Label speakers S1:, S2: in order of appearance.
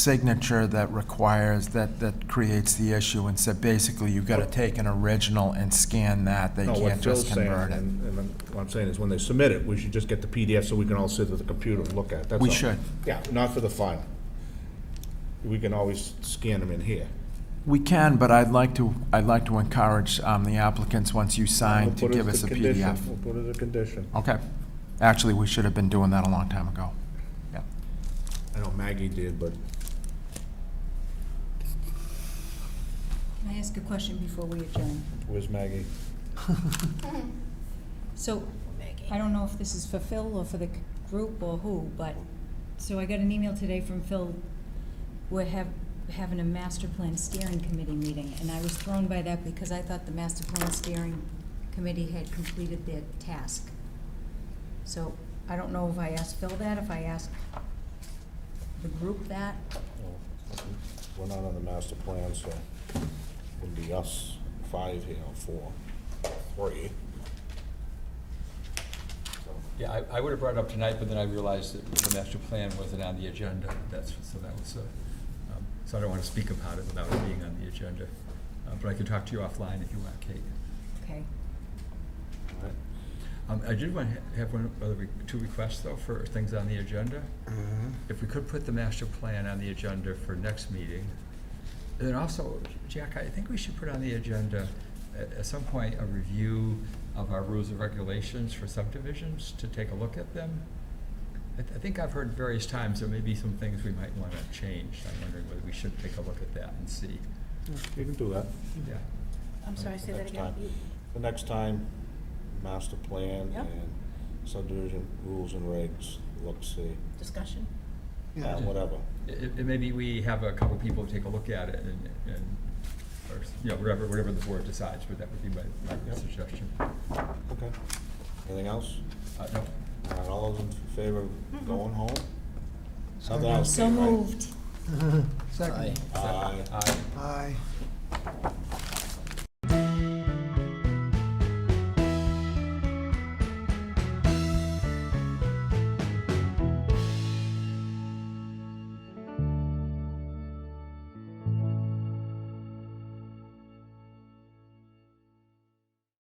S1: signature that requires, that, that creates the issue, and said, basically, you've got to take an original and scan that, they
S2: No, what
S1: can't
S2: Phil's
S1: just
S2: saying,
S1: convert it.
S2: and, and I'm- what I'm saying is, when they submit it, we should just get the PDF so we can all sit at the computer and look at it, that's
S1: We
S2: all.
S1: should.
S2: Yeah, not for the file. We can always scan them in here.
S1: We can, but I'd like to, I'd like to encourage um, the applicants, once you sign,
S2: We'll
S1: to
S2: put it
S1: give
S2: as
S1: us a
S2: the condition.
S1: PDF.
S2: We'll put it as a condition.
S1: Okay. Actually, we should have been doing that a long time ago. Yeah.
S2: I know Maggie did, but
S3: Can I ask a question before we adjourn?
S2: where's Maggie?
S3: So, I don't know if this is for Phil or for the c- group or who, but, so I got an email today from Phil. We're hav- having a master plan steering committee meeting, and I was thrown by that because I thought the master plan steering committee had completed their task. So, I don't know if I asked Phil that, if I asked the group that.
S2: Well, Oh, We're not on the master plan, so it would be us, five here, or four, three.
S4: Yeah, I, I would have brought it up tonight, but then I realized that the master plan wasn't on the agenda, that's, so that was, uh, um, so I don't want to speak about it without it being on the agenda. Uh, But I can talk to you offline if you want, Kate.
S3: Okay.
S2: All right.
S4: Um, I did want to have one, other re- two requests though for things on the agenda. If we could put the master plan on the agenda for next meeting. And then also, Jack, I think we should put on the agenda at, at some point a review of our rules and regulations for subdivisions to take a look at them. I, th- I think I've heard various times there may be some things we might want to change. I'm wondering whether we should take a look at that and see.
S2: You can do that.
S4: Yeah.
S5: I'm sorry, say that
S2: Next
S5: again.
S2: time. The next time, master plan
S5: Yep.
S2: and subdivision rules and regs, look, see,
S5: Discussion?
S2: uh, whatever.
S4: It, it, maybe we have a couple people take a look at it and, and, or, you know, whatever, whatever the board decides, but that would be my, my
S2: Yep.
S4: suggestion.
S2: Okay. Anything else?
S4: Uh, no,
S2: All right, All those in favor
S5: Mm-hmm.
S2: of going home? Something else,
S3: So
S2: Kate, right?
S3: moved.
S6: Second.
S2: Aye.
S4: I,
S6: Aye.